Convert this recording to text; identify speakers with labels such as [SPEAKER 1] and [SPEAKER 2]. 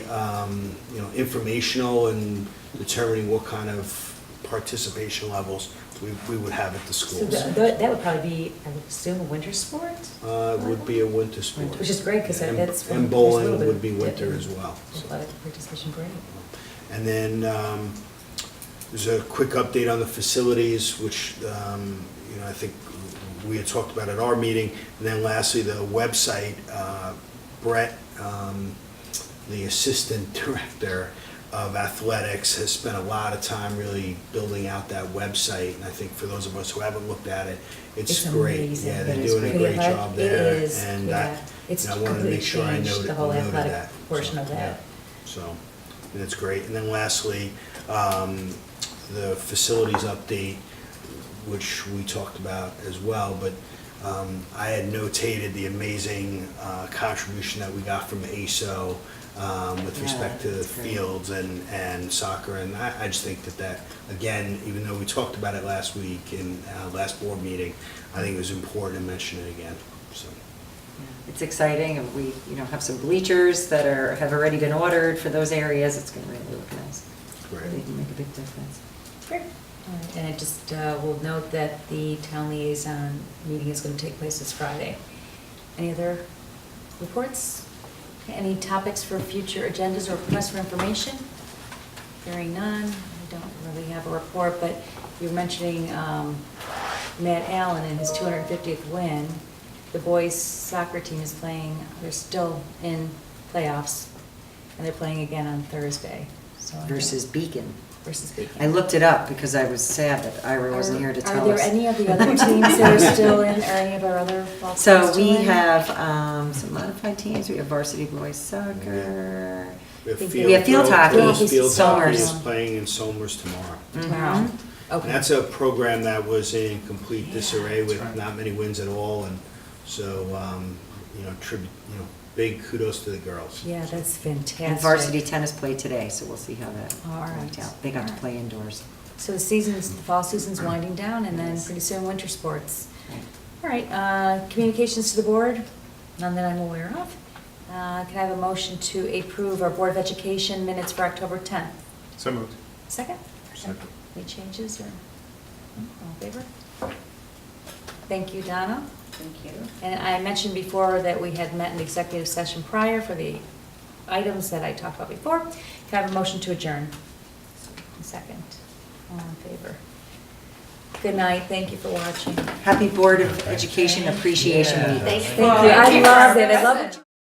[SPEAKER 1] um, you know, informational and determining what kind of participation levels we, we would have at the
[SPEAKER 2] So
[SPEAKER 1] schools.
[SPEAKER 2] tha- tha- that would probably be, I would assume, a winter sport?
[SPEAKER 1] Uh, it would be a winter sport.
[SPEAKER 2] Which is great, because
[SPEAKER 1] And-
[SPEAKER 2] that's.
[SPEAKER 1] And bowling would be winter as well. so.
[SPEAKER 2] Athletic participation, great.
[SPEAKER 1] And then um, there's a quick update on the facilities, which, um, you know, I think we had talked about at our meeting. And then lastly, the website, uh, Brett, um, the Assistant Director of Athletics, has spent a lot of time really building out that website. And I think for those of us who haven't looked at it, it's
[SPEAKER 2] It's
[SPEAKER 1] great.
[SPEAKER 2] amazing.
[SPEAKER 1] Yeah,
[SPEAKER 2] It
[SPEAKER 1] they're
[SPEAKER 2] is
[SPEAKER 1] doing a
[SPEAKER 2] great.
[SPEAKER 1] great
[SPEAKER 2] Yeah,
[SPEAKER 1] job
[SPEAKER 2] it
[SPEAKER 1] there.
[SPEAKER 2] is,
[SPEAKER 1] And
[SPEAKER 2] yeah.
[SPEAKER 1] I-
[SPEAKER 2] It's
[SPEAKER 1] and I wanted to
[SPEAKER 2] completely
[SPEAKER 1] make sure I
[SPEAKER 2] changed
[SPEAKER 1] noted
[SPEAKER 2] the whole
[SPEAKER 1] noted
[SPEAKER 2] athletic
[SPEAKER 1] that. So,
[SPEAKER 2] portion of that.
[SPEAKER 1] yeah. So, and it's great. And then lastly, um, the facilities update, which we talked about as well, but um, I had notated the amazing uh, contribution that we got from ASO um, with
[SPEAKER 2] Yeah,
[SPEAKER 1] respect to the
[SPEAKER 2] that's great.
[SPEAKER 1] fields and, and soccer. And I, I just think that that, again, even though we talked about it last week in uh, last board meeting, I think it was important to mention it again, so.
[SPEAKER 3] It's exciting, and we, you know, have some bleachers that are, have already been ordered for those areas, it's gonna really look nice.
[SPEAKER 1] Great.
[SPEAKER 3] They can make a big difference.
[SPEAKER 2] Great.
[SPEAKER 4] All right, And I just uh, will note that the town liaison meeting is going to take place this Friday. Any other reports? Any topics for future agendas or requests for information? Hearing none, I don't really have a report, but you were mentioning um, Matt Allen and his 250th win. The boys soccer team is playing, they're still in playoffs, and they're playing again on Thursday. So I think-
[SPEAKER 3] Versus Beacon.
[SPEAKER 4] Versus Beacon.
[SPEAKER 3] I looked it up because I was sad that Ira wasn't
[SPEAKER 4] Are-
[SPEAKER 3] here to tell
[SPEAKER 4] Are
[SPEAKER 3] us.
[SPEAKER 4] there any of the other teams that are still in, or any of our other ball clubs
[SPEAKER 3] So
[SPEAKER 4] still
[SPEAKER 3] we
[SPEAKER 4] in?
[SPEAKER 3] have um, some modified teams, we have varsity boys soccer.
[SPEAKER 1] We have
[SPEAKER 4] Think
[SPEAKER 1] field,
[SPEAKER 3] we have field
[SPEAKER 1] girls-
[SPEAKER 3] hockey.
[SPEAKER 1] girls Field hockey
[SPEAKER 4] Somers.
[SPEAKER 1] is playing in Somers tomorrow.
[SPEAKER 4] Wow.
[SPEAKER 3] Mhm.
[SPEAKER 1] And
[SPEAKER 4] Okay.
[SPEAKER 1] that's a program that was in complete disarray with
[SPEAKER 5] right.
[SPEAKER 1] not many wins at all, and so, um, you know, tribute, you know, big kudos to the girls.
[SPEAKER 4] Yeah, that's fantastic.
[SPEAKER 3] And varsity tennis play today, so we'll see how that
[SPEAKER 4] All
[SPEAKER 3] worked
[SPEAKER 4] right.
[SPEAKER 3] out. They got to
[SPEAKER 4] All right.
[SPEAKER 3] play indoors.
[SPEAKER 4] So the season's, the fall season's winding down, and then
[SPEAKER 3] Yes.
[SPEAKER 4] pretty soon, winter sports. All right, uh, communications to the board, none that I'm aware of. Uh, Can I have a motion to approve our Board of Education minutes for October 10th?
[SPEAKER 5] So moved.
[SPEAKER 4] Second?
[SPEAKER 5] Second.
[SPEAKER 4] Any changes or, all in favor? Thank you, Donna.
[SPEAKER 3] Thank you.
[SPEAKER 4] And I mentioned before that we had met in the executive session prior for the items that I talked about before. Can I have a motion to adjourn? Second, all in favor? Good night, thank you for watching.
[SPEAKER 3] Happy Board of Education Appreciation Week.
[SPEAKER 4] Thank you, I love it, I love it.